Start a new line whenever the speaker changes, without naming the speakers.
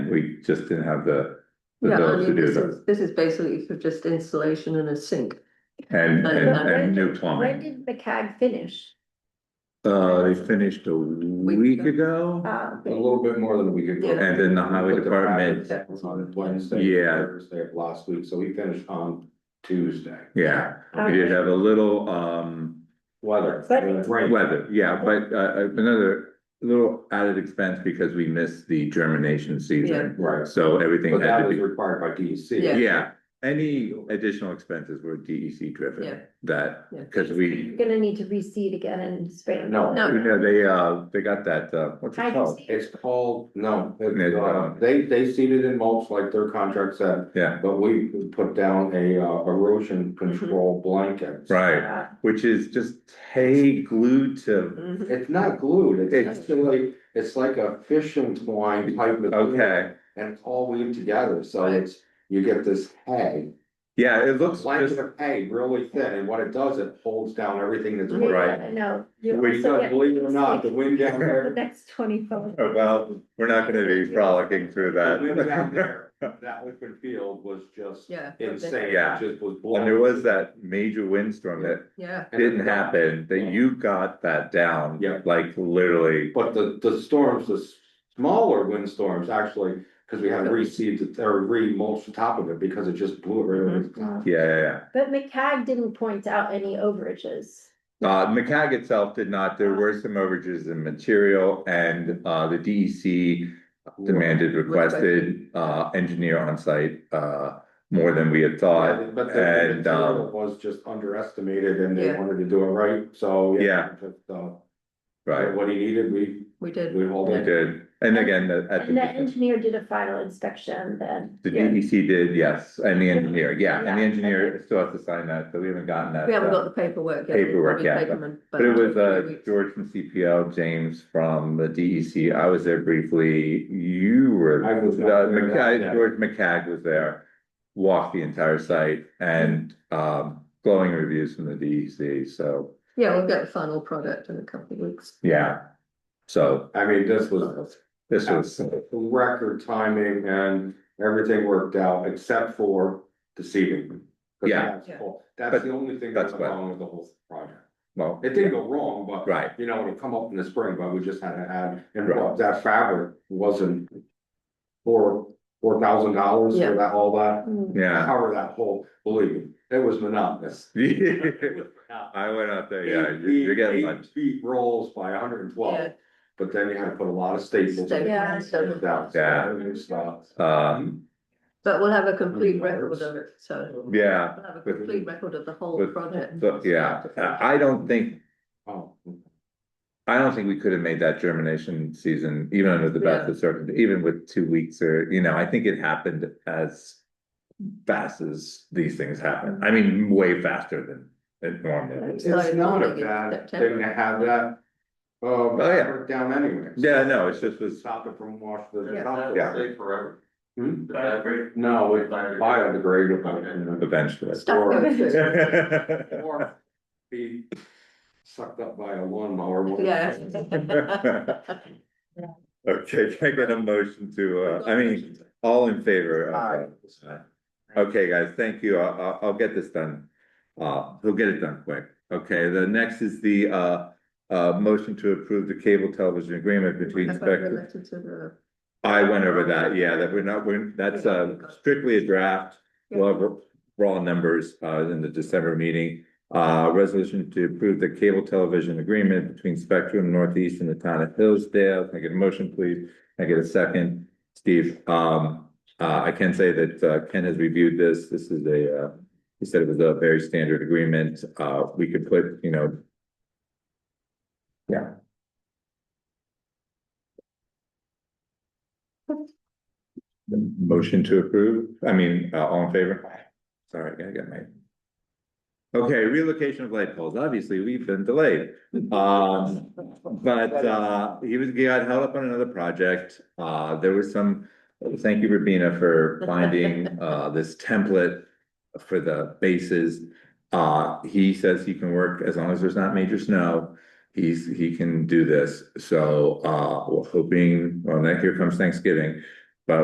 we just didn't have the. the
Yeah, I
ability to
mean,
do
this
that.
is, this is basically for just installation and a sink.
And,
But-
and,
but
where
and new
did- Where
plumbing.
did the CAG finish?
Uh, they finished a week ago.
Uh,
A little bit more than a week ago.
Yeah.
And then the highway
But the
department-
project was On Wednesday.
Yeah.
Thursday of last week, so we finished on Tuesday.
Yeah, we did have a little, um,
Weather.
But-
Rain.
weather, yeah, but, uh, another little added expense because we missed the germination season.
Right,
So everything
but
had
that
to
was
be,
required by E DEC.
Yeah.
yeah, any additional expenses were DEC
Yeah.
driven that,
Oh,
Yeah.
cause we,
You're gonna need to reseed again in spring.
No.
No.
you know, they, uh, they got that, uh, what's it
Hydro
called?
seed.
It's called, no,
It's,
it-
uh,
uh, they, they seeded in mulch like their contract said,
Yeah,
but we put down a uh, erosion control blanket.
right,
Uh,
which is just hay glued to,
Mhm.
It's not glued,
It's-
it's actually, it's like a fishing twine type of.
okay,
And it's all weaved together, so it's, you get this hay.
yeah, it looks
Blanket
just,
of hay really thin, and what it does, it holds down everything that's.
yeah,
Right.
I know. You
Well, you
also
Because
get-
believe it or not, the wind down Oh,
The
there,
next twenty-four.
Oh, well, we're not gonna be frolicking through
the wind
that.
down there, that open field was just
Yeah.
insane,
Yeah.
it just was.
And there was that major windstorm that
Yeah,
didn't happen, that you got that down.
Yeah.
Like literally,
But the, the storms, the s- smaller windstorms actually, because we had reseeded or remulched the top of it because it just blew it right over the
Mm-hmm.
top.
yeah, yeah,
Uh, But McCag didn't point out any overages.
yeah. Uh, McCag itself did not, there were some overages in material and, uh, the DEC demanded, requested, uh, engineer on site, uh, more than we had
Yeah,
thought.
But the the
And,
material
um,
was just underestimated and they
Yeah.
wanted to do it right, so.
Yeah.
just, uh,
right,
What he needed, we,
we did.
we hauled
we
it.
did. And again, the- at
And the
the,
engineer did a final inspection then.
the
Yeah.
DEC did, yes, and the engineer, yeah, and the
Yeah.
engineer still has to sign that, so we haven't gotten that.
We haven't
uh,
got the paperwork yet. We've
Paperwork,
probably
yeah,
taken them,
But it was,
a
uh, George from CPL, James from the DEC, I was there briefly, you were.
I was
uh,
not there that
McCag-
day.
George McCag was there, walked the entire site and, um, glowing reviews from the DEC, so,
Yeah, we'll get the final product in a couple of weeks.
yeah. So
I mean, this was
this was,
record timing and everything worked out except for the seeding. 'Cause
Yeah.
that's
Yeah.
all- That's
But
the only thing
that's
that went
what-
wrong with the whole project.
well,
It didn't go wrong, but.
right,
You know, it'll come up in the spring, but we just had to add, and
Right.
what, that fabric wasn't. Four, four thousand dollars
Yeah.
for that, all that,
Mm.
yeah.
cover that whole, believe me, it was monotonous.
I went out there, Oh, yeah,
Eight
you- you're
feet,
getting
eight
lunch,
feet rolls by hundred and twelve, but then you had to put a lot of staples. in it.
Yeah.
That-
Yeah.
that was, uh,
um,
But we'll have a complete
Mm-hmm.
record of it, so.
yeah,
We'll have a complete record of the whole
With-
project.
so, yeah, uh, I I don't think
oh,
I don't think we could have made that germination season, even under the best of circum, even with two weeks or, you know, I think it happened as. Fast as these things happen, I mean, way faster than it normally.
It's
It's
like
not a
beginning of
bad
September.
thing to have that. Uh,
yeah.
fabric down anyway.
Yeah, no, it's just was-
Stop it from washing the.
Yeah.
top.
Yeah.
Forever.
Hmm?
That great.
No, it's biodegradable.
Eventually.
Stuff goes through.
Or be sucked up by a lawnmower.
Yeah.
Okay, can I get a motion to, uh, I mean, all in favor? of, uh, Okay, guys, thank you. I'll, I'll, I'll get this done. Uh, he'll get it done quick. Okay, the next is the, uh, uh, motion to approve the cable television agreement between
Have I
Spectrum.
related to the-
I went over that, yeah, that we're not, we're, that's, uh, strictly a draft. We'll have raw numbers, uh, in the December meeting. Uh, resolution to approve the cable television agreement between Spectrum Northeast and the town of Hillsdale. Can I get a motion, please? Can I get a second? Steve, um, uh, I can say that, uh, Ken has reviewed this. This is a, uh, he said it was a very standard agreement. Uh, we could put, you know, yeah. Motion to approve, I mean, uh, all in favor? Sorry, I got my. Okay, relocation of light poles, obviously, we've been delayed. Um, but, uh, he was, he got held up on another project. Uh, there was some, thank you, Rabina, for finding, uh, this template for the bases. Uh, he says he can work as long as there's not major snow. He's, he can do this. So, uh, we're hoping, well, now here comes Thanksgiving.